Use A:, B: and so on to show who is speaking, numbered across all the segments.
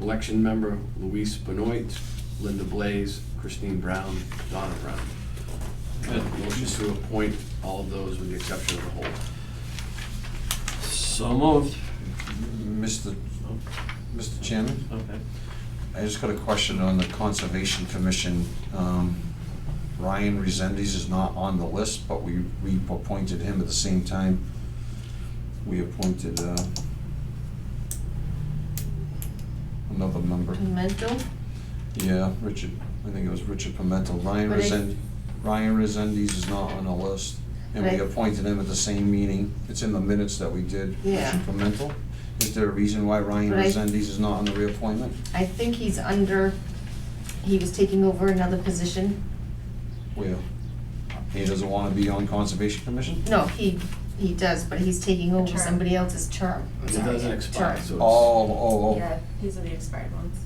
A: Election member Luis Benoit, Linda Blaze, Christine Brown, Donna Brown. Good. Motion to appoint all of those with the exception of the whole.
B: So moved.
C: Mr. Mr. Chairman,
B: Okay.
C: I just got a question on the Conservation Commission. Um, Ryan Resendes is not on the list, but we we appointed him at the same time. We appointed uh, another member.
D: Pimental,
C: Yeah, Richard, I think it was Richard Pimental. Ryan
D: But I-
C: Resend, Ryan Resendes is not on the list. And we
D: But I-
C: appointed him at the same meeting. It's in the minutes that we did.
D: Yeah.
C: Richard Pimental. Is there a reason why Ryan
D: But I-
C: Resendes is not on the reappointment?
D: I think he's under, he was taking over another position.
C: Where? He doesn't want to be on Conservation Commission?
D: No, he, he does, but he's taking over
E: term.
D: somebody else's term.
A: It
D: Sorry,
A: doesn't expire,
D: term.
A: so
C: Oh,
A: it's.
C: oh, oh.
E: Yeah, these are the expired ones.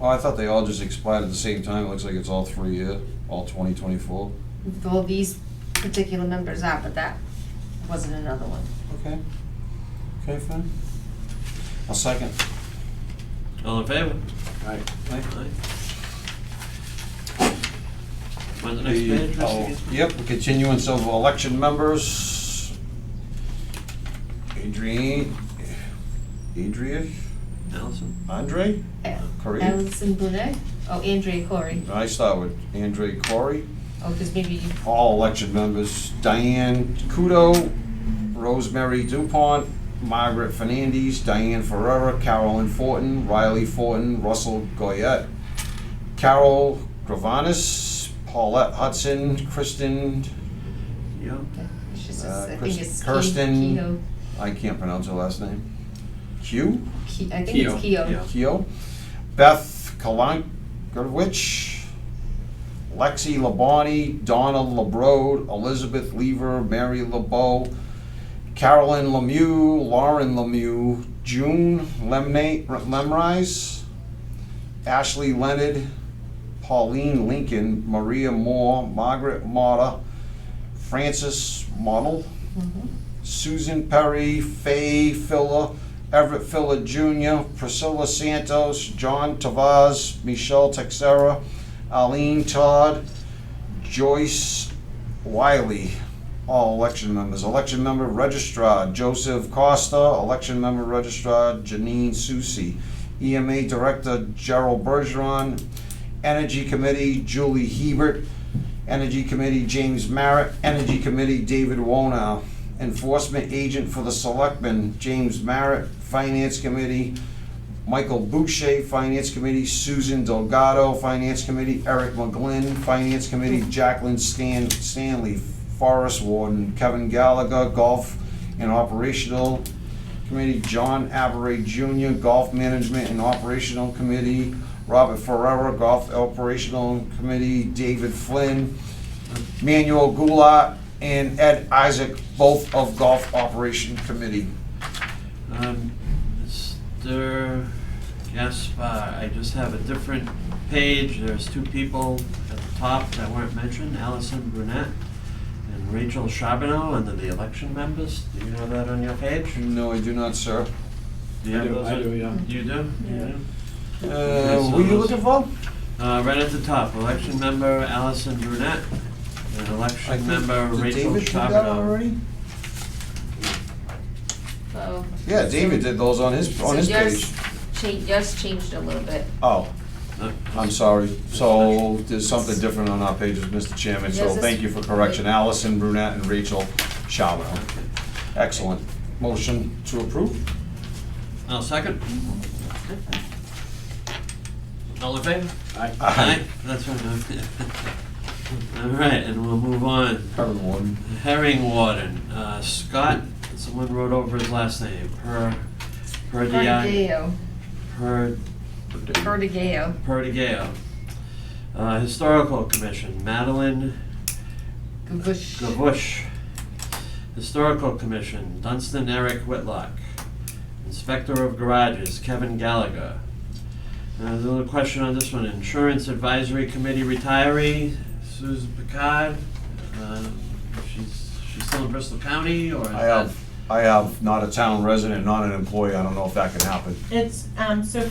C: Oh, I thought they all just expired at the same time. It looks like it's all three year, all twenty twenty-four.
D: Well, these particular members are, but that wasn't another one.
C: Okay. Okay, fine. I'll second.
B: All in favor?
A: All right.
C: Aye.
B: Aye. When's the next page,
C: Oh,
B: Mr. Gies-
C: Yep, continuance of election members. Adrian, Adria,
B: Allison?
C: Andre?
A: Uh,
D: A-
C: Corey?
D: Allison Bonet, oh, Andrea Corey,
C: I start with Andre Corey,
D: oh, because maybe you
C: all election members, Diane Kudo, Rosemary Dupont, Margaret Fernandez, Diane Ferrera, Carolyn Fortin, Riley Fortin, Russell Goyette, Carol Gravanas, Paulette Hudson, Kristen
B: Yeah.
D: It's just,
C: Uh,
D: I
C: Kirst-
D: think it's
C: Kirsten-
D: Keough.
C: I can't pronounce her last name. Q?
D: Ke- I think it's
A: Keough,
D: Keough.
B: yeah.
C: Keo. Beth Kalankovich. Lexi Labonte, Donna LeBrode, Elizabeth Lever, Mary LeBeau, Carolyn Lemieux, Lauren Lemieux, June Lemnate, Lemrise, Ashley Leonard, Pauline Lincoln, Maria Moore, Margaret Motta, Frances Model,
D: Mhm.
C: Susan Perry, Faye Filler, Everett Filler Jr., Priscilla Santos, John Tavaz, Michelle Texera, Aline Todd, Joyce Wiley, all election members. Election member registrar Joseph Costa, election member registrar Janine Susi, EMA director Gerald Bergeron, Energy Committee Julie Hebert, Energy Committee James Merritt, Energy Committee David Wonow, Enforcement Agent for the Selectmen James Merritt, Finance Committee Michael Boucher, Finance Committee Susan Delgado, Finance Committee Eric McGlynn, Finance Committee Jacqueline Stan, Stanley, Forest Warden Kevin Gallagher, Golf and Operational Committee John Avery Jr., Golf Management and Operational Committee Robert Ferrera, Golf Operational Committee, David Flynn, Manuel Goulart, and Ed Isaac, both of Golf Operation Committee.
B: Um, Mr. Gaspar, I just have a different page. There's two people at the top that weren't mentioned, Allison Brunette and Rachel Charbonneau, under the election members. Do you know that on your page?
C: No, I do not, sir.
B: Do you
A: I
B: have
A: do,
B: those
A: I
B: on-
A: do, yeah.
B: You do?
E: Yeah.
B: You do?
C: Uh, who are you looking for?
B: Uh, right at the top, election member Allison Brunette, and
C: I
B: election
C: think-
B: member
C: did
B: Rachel
C: David do that
B: Charbonneau.
C: already?
D: Oh.
F: So.
C: Yeah, David did those on his, on
F: so
C: his
F: yours
C: page.
F: cha- yours changed a little bit.
C: Oh,
B: Uh,
C: I'm sorry. So there's something different on our pages, Mr. Chairman, so
F: Yours is-
C: thank you for correction. Allison Brunette and Rachel Charbonneau. Excellent. Motion to approve?
B: I'll second. All in favor?
A: Aye.
C: Aye.
B: That's what I'm All right, and we'll move on.
C: Kevin Warden.
B: Herring warden, uh, Scott, someone wrote over his last name, per, per di,
D: Perdigao,
B: per,
D: Perdigao.
B: perdigao. Uh, historical commission, Madeline
D: Gavush.
B: Gavush. Historical Commission, Dunstan Eric Whitlock. Inspector of Garages, Kevin Gallagher. Uh, There's a little question on this one, Insurance Advisory Committee retiree, Susan Picard. Uh, She's, she's still in Bristol County, or is
C: I
B: that?
C: have, I have not a town resident, not an employee. I don't know if that can happen.
E: It's, um, so